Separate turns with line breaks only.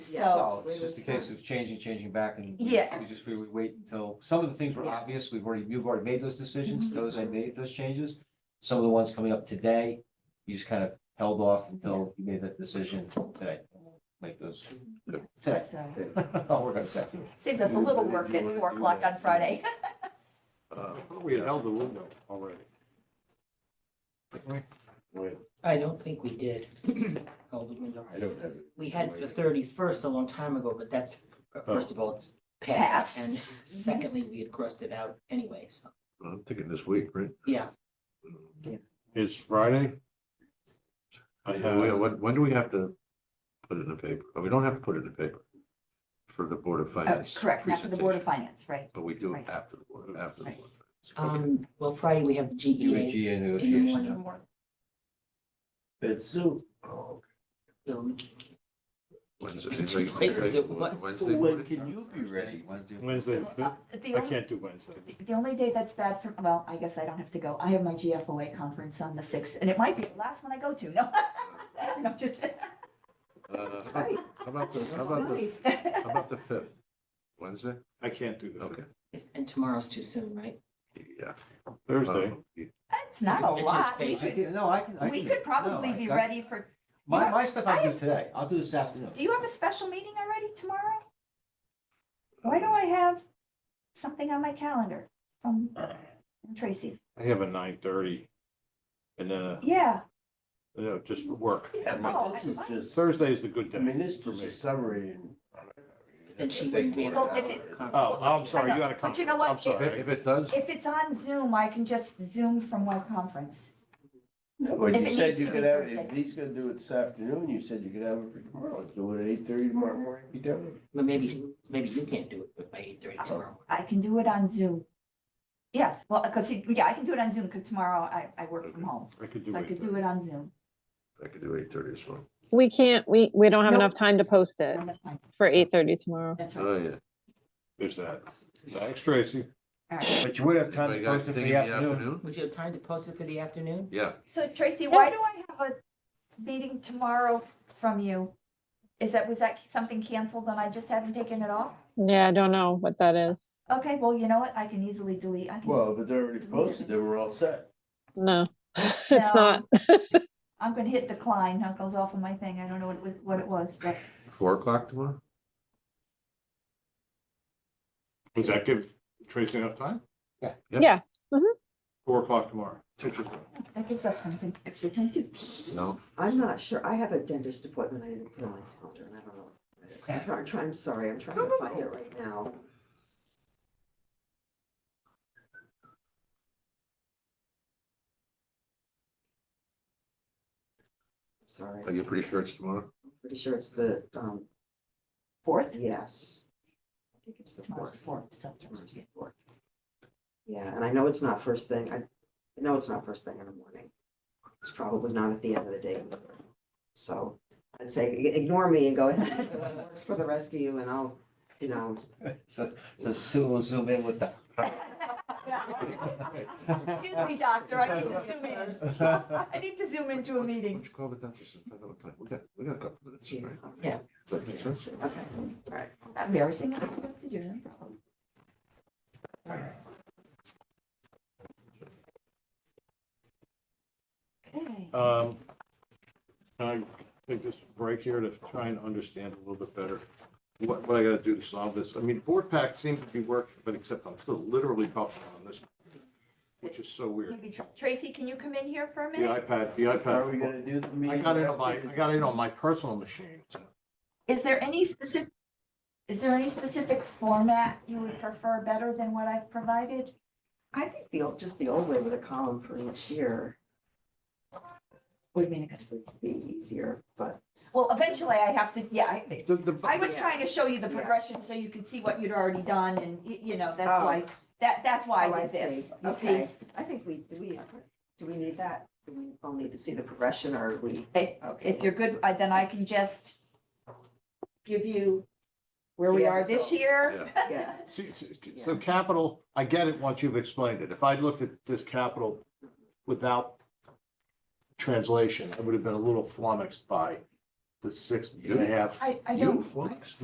So,
No, it's just a case of changing, changing back and. we-
Yeah.
We just, we would wait until, some of the things were
Yeah.
obvious, we've already, you've already made those decisions,
Mhm.
those I made those changes. Some of the ones coming up today, you just kind of held off until you made that decision today. Make those, today,
so,
I'll work on second.
saved us a little work at four o'clock on Friday.
Uh, We had held the window already. Wait,
I don't think we did. Oh, Hold the window.
I don't have it.
We had the thirty-first a long time ago, but that's, uh, first of all, it's
Passed.
passed. And secondly, we had crossed it out anyway, so,
I'm thinking this week, right?
yeah.
It's Friday? I have, when, when do we have to put it in the paper? Oh, We don't have to put it in the paper for the Board of Finance.
Uh, Correct, not for the Board of
presentation,
Finance, right?
But we do it
Right.
after the Board, after the
Right.
Board. of Finance.
Um, well, Friday we have the E GEA,
UAG and negotiation in the
morning.
morning.
It's soon. Oh,
um,
Wednesday.
Two places at once.
Wednesday.
When can you be ready? Wednesday?
Wednesday, the
Uh,
fifth?
The
I
only,
can't do Wednesday.
the only day that's bad for, well, I guess I don't have to go. I have my GFOA conference on the sixth, and it might be the last one I go to, no? No, just.
Uh, How about- how about the, how about the, how about the fifth? Wednesday?
I can't do the
Okay,
fifth.
and tomorroow's too soon, right?
yeah.
Thursday.
Uh,
It's not a
It's just
lot. We
basic.
could-
can- No, I can, I
We
can-
could probably
no, I-
be
I-
ready for,
My, my stuff
I
I do
have-
today, I'll do this afternoon.
do you have a special meeting already tomorrow? Why do I have something on my calendar from from Tracy?
I have a nine thirty. And, uh,
Yeah, Oh,
you know, just work.
Yeah, but this is
just.
Thursday is the good day. for me.
summary and.
Then she wouldn't be able
Well,
to
if
have
it-
a conference.
Oh, I'm sorry,
I
you
know,
got a
but you know
conference. I'm
what?
sorry.
If it does,
If it's on Zoom, I can just Zoom from my conference.
Well,
If
you
it
said
needs
you
to
could
be
have, it-
Thursday.
if he's gonna do it this afternoon, you said you could have it for tomorrow, do it at eight thirty tomorrow morning, be done. with it.
But maybe, maybe you can't do it by eight thirty tomorrow.
I can do it on Zoom. Yes, well, because, yeah, I can do it on Zoom because tomorrow I, I work from home.
I could do
So I
it.
could do it on Zoom.
I could do eight thirty as well.
We can't, we, we don't have
Nope.
enough time to post it for eight thirty tomorrow.
That's right.
Oh, yeah.
There's that. Thanks, Tracy.
All right.
But you would have time
Anybody
to
got
post it for
anything
the
in the
afternoon.
afternoon?
Would you have time to post it for the afternoon?
Yeah,
So Tracy, why do I have a meeting tomorrow from you? Is that, was that something canceled and I just haven't taken it off?
Yeah, I don't know what that is.
Okay, well, you know what? I can easily delete. I can-
Well, but they're already posted, then we're all set.
No, it's
No.
not.
I'm gonna hit decline. That goes off of my thing. I don't know what, it was- what it was, but
four o'clock tomorrow?
Does that give Tracy enough time?
Yep.
Yeah.
Four o'clock tomorrow. Interesting.
that gives us something.
Actually, can I do,
No,
I'm not sure, I have a dentist appointment I didn't put on my calendar, and I don't know. what it is. I'm try- I'm trying, I'm sorry, I'm trying to find it right now. Sorry,
are you pretty sure it's tomorrow?
I'm pretty sure it's the, um,
Fourth?
yes. I think it's the
Tomorrow's
fourth.
the fourth, so
Tomorrow's the fourth. Yeah, and I know it's not first thing, I, I know it's not first thing in the morning. It's probably not at the end of the day. either. So I'd say i- ignore me and go ahead, It's for the rest of you and I'll, you know,
So, so Sue will zoom in with the.
Excuse me, doctor, I need to zoom in. I need to zoom into a
What's-
meeting.
What's it called? The dentist and find out what time. We got, we got a couple minutes,
yeah.
right?
Yeah.
Does that make sense?
Okay, all right.
Embarrassing. I have to do that. Okay.
Um, I take this break here to try and understand a little bit better what, what I gotta do to solve this. I mean, board pack seems to be working, but except I'm still literally buffering on this, which is so weird.
Maybe Tr- Tracy, can you come in here for a
The
minute?
iPad, the
Are we
iPad,
gonna do the meeting?
I got it on my,
after?
I got it on my personal machine.
Is there any specific, is there any specific format you would prefer better than what I've provided?
I think the, old just the old way with a column for each year
Would mean,
would be easier, but
well, eventually I have to, yeah, I,
The, the,
I was
Yeah.
trying to show you the
Yeah.
progression so you could see what you'd already done and, y- you know, that's
Oh.
why, that, that's why
Oh,
I did
see.
this. You see,
Okay, I think we, do we, do we need that? Do we all need to see the progression or are we?
If-
Okay.
if you're good, I- then I can just give you where we
The
are this
results.
year.
Yeah.
see, see, so capital, I get it once you've explained it. If I looked at this capital without translation, I would have been a little flummoxed by the sixth, you're gonna have.
I- I don't-
Beautiful.